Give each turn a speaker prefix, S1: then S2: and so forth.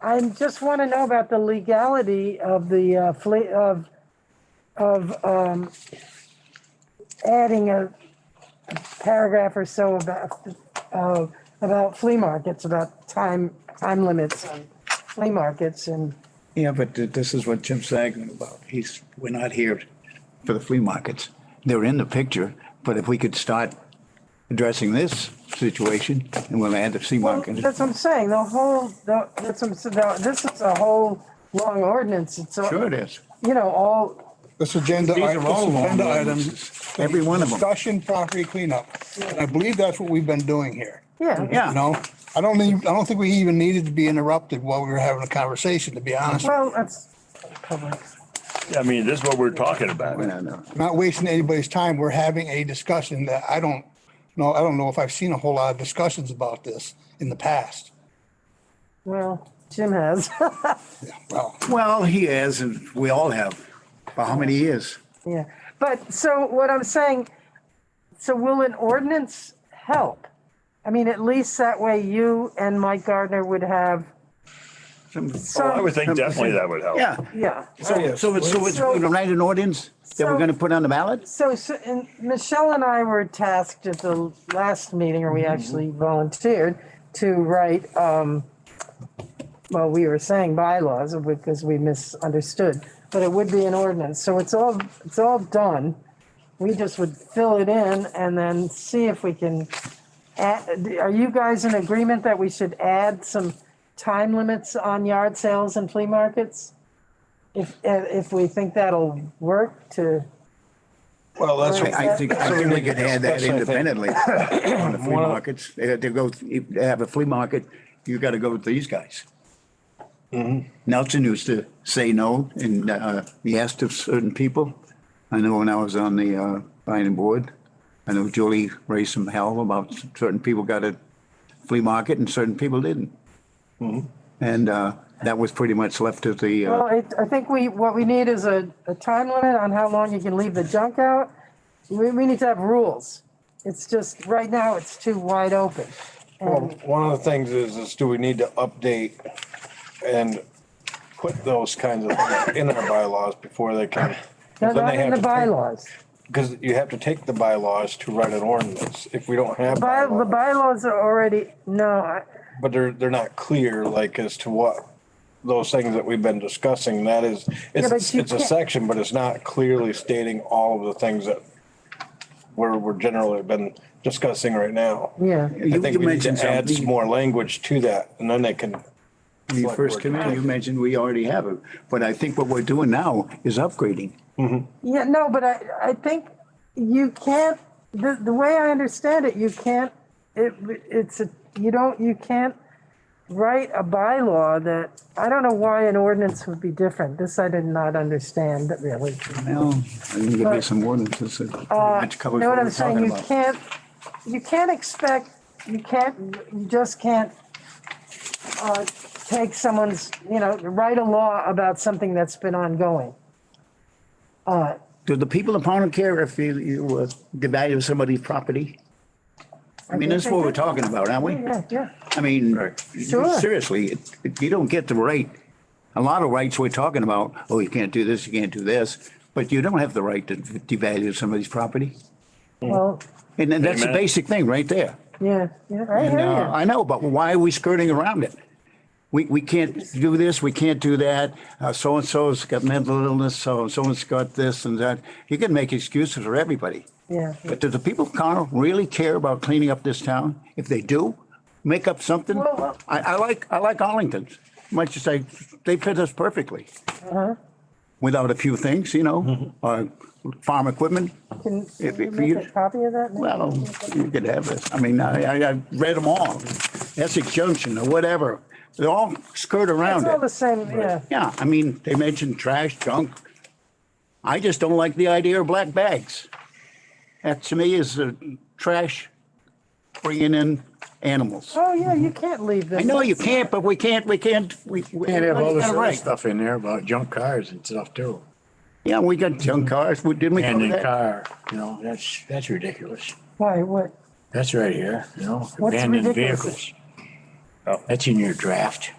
S1: I just want to know about the legality of the, uh, fle- of, of um, adding a paragraph or so about, uh, about flea markets, about time, time limits on flea markets and,
S2: Yeah, but th- this is what Jim's arguing about. He's, we're not here for the flea markets. They're in the picture, but if we could start addressing this situation and we'll add the flea market.
S1: that's what I'm saying, the whole, the- that's what I'm, saying, the- this is a whole long ordinance. It's, a-
S2: Sure it is.
S1: you know, all,
S3: This agenda,
S2: These
S3: i-
S2: are all
S3: this
S2: long
S3: agenda item.
S2: ordinances. Every one of 'em.
S3: Discussion property cleanup. And I believe that's what we've been doing here.
S1: yeah.
S2: Yeah.
S3: You know, I don't need, I don't think we even needed to be interrupted while we were having a conversation, to be honest.
S1: Well, that's public.
S4: I mean, this is what we're talking about.
S2: No, no.
S3: Not wasting anybody's time. We're having a discussion that I don't know, I don't know if I've seen a whole lot of discussions about this in the past.
S1: Well, Jim has.
S3: Well,
S2: Well, he has, and we all have. For how many years?
S1: Yeah, but so what I'm saying, so will an ordinance help? I mean, at least that way you and Mike Gardner would have,
S2: Some-
S4: Well, I would think definitely that would help.
S2: Yeah.
S1: yeah.
S2: So, so it's, so it's,
S1: So-
S2: we're gonna write an ordinance that we're
S1: So-
S2: gonna put on the ballot?
S1: So, so- and Michelle and I were tasked at the last meeting, or we actually volunteered to write, um, well, we were saying bylaws because we misunderstood, but it would be an ordinance. So it's all, it's all done. We just would fill it in and then see if we can add, are you guys in agreement that we should add some time limits on yard sales and flea markets? If, if we think that'll work to.
S5: Well, that's,
S1: Right.
S2: I I think, I think we could add that
S5: That's what I think.
S2: independently on the flea
S5: One of-
S2: markets. They have to go, if they have a flea market, you gotta go with these guys.
S5: Mm-hmm.
S2: Nelson used to say no and, uh, yes to certain people. I know when I was on the, uh, planning board, I know Julie raised some hell about certain people got a flea market and certain people didn't.
S5: Mm-hmm.
S2: And, uh, that was pretty much left to the,
S1: Well,
S2: uh,
S1: I, I think we, what we need is a, a time limit on how long you can leave the junk out. We, we need to have rules. It's just, right now, it's too wide open.
S5: well,
S1: And,
S5: one of the things is, is do we need to update and put those kinds of things in our bylaws before they come?
S1: no,
S5: Then they
S1: not in
S5: have
S1: the
S5: to take-
S1: bylaws.
S5: Because you have to take the bylaws to write an ordinance. If we don't have
S1: By, the
S5: bylaws,
S1: bylaws are already, no, I-
S5: but they're, they're not clear, like as to what those things that we've been discussing, that is, it's,
S1: but you
S5: it's a
S1: can't-
S5: section, but it's not clearly stating all of the things that we're, we're generally been discussing right now.
S1: yeah.
S2: You-
S5: I think
S2: you
S5: we need
S2: mentioned
S5: to add
S2: something.
S5: some more language to that and then they can.
S2: When you first came in, you mentioned we already have it, but I think what we're doing now is upgrading.
S1: Yeah, no, but I, I think you can't, the, the way I understand it, you can't, it, it's a, you don't, you can't write a bylaw that, I don't know why an ordinance would be different. This I did not understand really.
S2: Well, I can give you some ordinances that pretty much
S1: You
S2: covers
S1: uh, know
S2: what
S1: what
S2: we're
S1: I'm saying?
S2: talking
S1: You
S2: about.
S1: can't, you can't expect, you can't, you just can't uh, take someone's, you know, write a law about something that's been ongoing.
S2: Do the people of Pownell care if you, you, uh, the value of somebody's property? I mean,
S1: think
S2: that's
S1: they
S2: what we're
S1: do.
S2: talking about, aren't we?
S1: Yeah, yeah.
S2: I mean,
S4: Right.
S1: Sure.
S2: seriously, it- it- you don't get the right, a lot of rights we're talking about, oh, you can't do this, you can't do this, but you don't have the right to devalue somebody's property.
S1: Well,
S2: And then that's the
S4: Amen.
S2: basic thing right there.
S1: yeah, yeah, I
S2: And,
S1: hear
S2: uh,
S1: you.
S2: I know, but why are we skirting around it? We, we can't do this, we can't do that, uh, so-and-so's got mental illness, so, so-and-so's got this and that. You can make excuses for everybody.
S1: Yeah.
S2: But do the people of Connell really care about cleaning up this town? If they do, make up something.
S1: Well, well-
S2: I, I like, I like Arlington's, much as I, they fit us perfectly.
S1: Uh-huh.
S2: Without a few things, you
S1: Mm-hmm.
S2: know, uh, farm equipment,
S1: Can can
S2: if-
S1: you
S2: if
S1: make
S2: you-
S1: a copy of that?
S2: well, you could have this. I mean, I, I, I read them all. Essex Junction or whatever. They all
S1: It's
S2: skirt around
S1: all the
S2: it.
S1: same, yeah.
S2: Yeah, I mean, they mentioned trash, junk. I just don't like the idea of black bags. That to me is uh, trash bringing in animals.
S1: Oh, yeah, you can't leave this.
S2: I know you can't, but we can't, we can't, we. we-
S6: Can't have all this
S2: we got a
S6: other
S2: right.
S6: stuff in there about junk cars and stuff too.
S2: Yeah, we got junk cars. We- Didn't we
S6: And
S2: cover
S6: in
S2: that?
S6: car, you know, that's, that's ridiculous.
S1: Why, what?
S6: That's right here, you know,
S1: What's
S6: abandoned
S1: ridiculous?
S6: vehicles. That's in your draft.